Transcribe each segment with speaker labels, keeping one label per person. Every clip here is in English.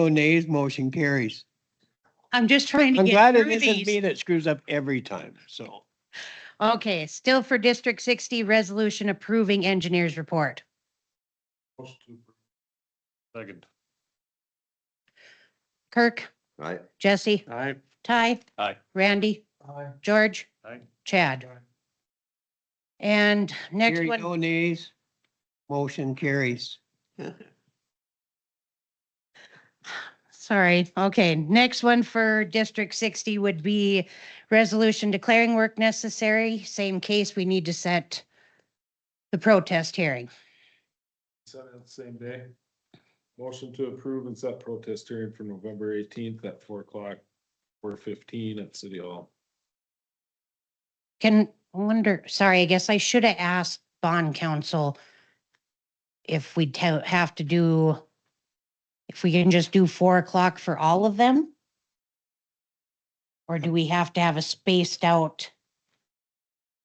Speaker 1: No nays, motion carries.
Speaker 2: I'm just trying to
Speaker 1: I'm glad
Speaker 2: get
Speaker 1: it
Speaker 2: through
Speaker 1: isn't me
Speaker 2: these.
Speaker 1: that screws up every time, so.
Speaker 2: Okay, still for District sixty, resolution approving engineers report.
Speaker 3: Second.
Speaker 2: Kirk,
Speaker 4: Aye.
Speaker 2: Jesse,
Speaker 3: Aye.
Speaker 2: Ty.
Speaker 3: Aye.
Speaker 2: Randy, George,
Speaker 3: Aye.
Speaker 2: Chad. And next
Speaker 1: Hearing
Speaker 2: one,
Speaker 1: No nays, motion carries.
Speaker 2: sorry, okay, next one for District sixty would be resolution declaring work necessary. Same case, we need to set the protest hearing.
Speaker 3: Set it the same day. Motion to approve and set protest hearing for November eighteenth at four o'clock, four fifteen at City Hall.
Speaker 2: Can wonder, sorry, I guess I should have asked bond counsel if we have to do, if we can just do four o'clock for all of them? Or do we have to have a spaced out?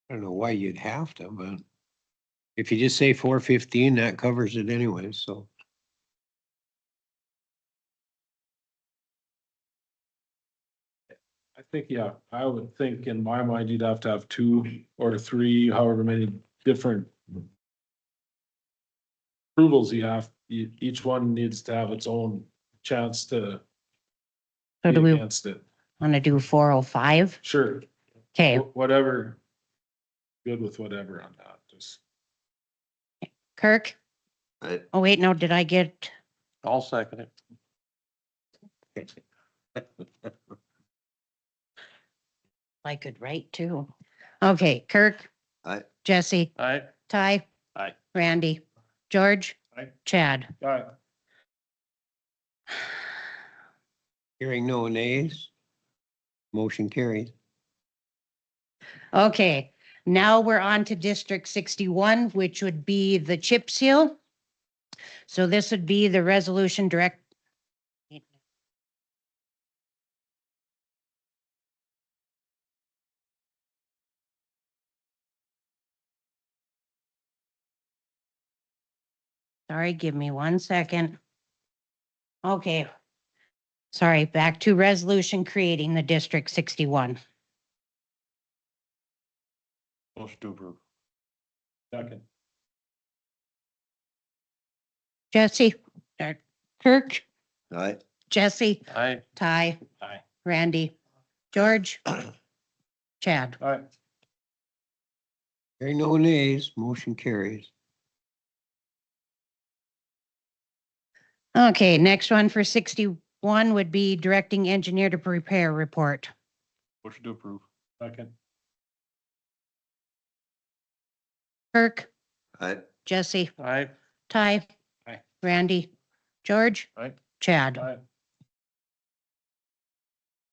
Speaker 1: I don't know why you'd have to, but if you just say four fifteen, that covers it anyway, so.
Speaker 3: I think, yeah, I would think in my mind, you'd have to have two or three, however many different approvals you have, E- each one needs to have its own chance to
Speaker 2: So
Speaker 3: be
Speaker 2: do we
Speaker 3: against it.
Speaker 2: want to do four oh five?
Speaker 3: Sure,
Speaker 2: Okay,
Speaker 3: wh- whatever. Good with whatever on that, just.
Speaker 2: Kirk?
Speaker 4: Aye.
Speaker 2: Oh, wait, no, did I get,
Speaker 3: I'll second it.
Speaker 2: I could write too. Okay, Kirk?
Speaker 4: Aye.
Speaker 2: Jesse,
Speaker 3: Aye.
Speaker 2: Ty?
Speaker 3: Aye.
Speaker 2: Randy, George?
Speaker 3: Aye.
Speaker 2: Chad?
Speaker 3: Aye.
Speaker 1: Hearing no nays, motion carries.
Speaker 2: Okay, now we're on to District sixty-one, which would be the chip seal. So this would be the resolution direct. Sorry, give me one second. Okay. Sorry, back to resolution creating the District sixty-one.
Speaker 3: Motion to approve. Second.
Speaker 2: Jesse, or Kirk,
Speaker 4: Aye.
Speaker 2: Jesse,
Speaker 3: Aye.
Speaker 2: Ty.
Speaker 3: Aye.
Speaker 2: Randy, George, Chad.
Speaker 3: Aye.
Speaker 1: Hearing no nays, motion carries.
Speaker 2: Okay, next one for sixty-one would be directing engineer to prepare report.
Speaker 3: Motion to approve. Second.
Speaker 2: Kirk,
Speaker 4: Aye.
Speaker 2: Jesse,
Speaker 3: Aye.
Speaker 2: Ty.
Speaker 3: Aye.
Speaker 2: Randy, George.
Speaker 3: Aye.
Speaker 2: Chad.
Speaker 3: Aye.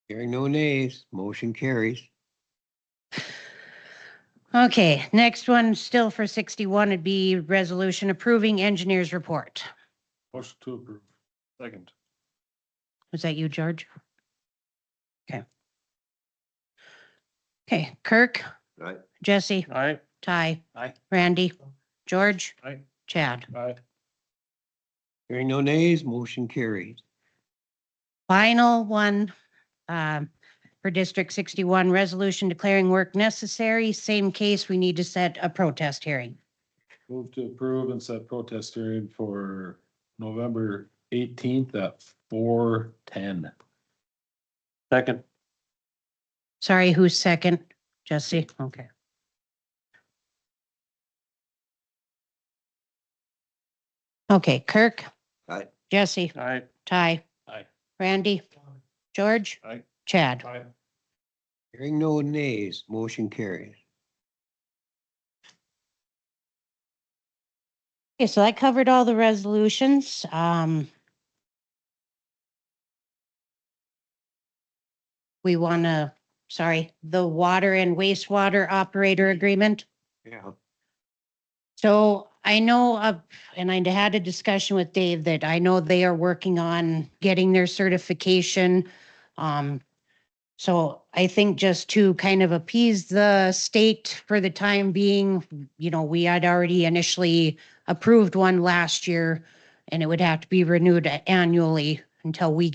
Speaker 1: Hearing no nays, motion carries.
Speaker 2: Okay, next one still for sixty-one would be resolution approving engineer's report.
Speaker 3: Motion to approve. Second.
Speaker 2: Was that you, George? Okay. Okay, Kirk,
Speaker 4: Aye.
Speaker 2: Jesse,
Speaker 3: Aye.
Speaker 2: Ty.
Speaker 3: Aye.
Speaker 2: Randy, George,
Speaker 3: Aye.
Speaker 2: Chad.
Speaker 3: Aye.
Speaker 1: Hearing no nays, motion carries.
Speaker 2: Final one um, for District 61, resolution declaring work necessary. Same case, we need to set a protest hearing.
Speaker 3: Move to approve and set protest hearing for November eighteenth at four ten. Second.
Speaker 2: Sorry, who's second? Jesse, okay. Okay, Kirk.
Speaker 4: Aye.
Speaker 2: Jesse,
Speaker 3: Aye.
Speaker 2: Ty.
Speaker 3: Aye.
Speaker 2: Randy, George.
Speaker 3: Aye.
Speaker 2: Chad.
Speaker 3: Aye.
Speaker 1: Hearing no nays, motion carries.
Speaker 2: Okay, so that covered all the resolutions. Um, we want to, sorry, the water and wastewater operator agreement.
Speaker 1: Yeah.
Speaker 2: So I know of, and I had a discussion with Dave that I know they are working on getting their certification. Um, so I think just to kind of appease the state for the time being, you know, we had already initially approved one last year and it would have to be renewed annually until we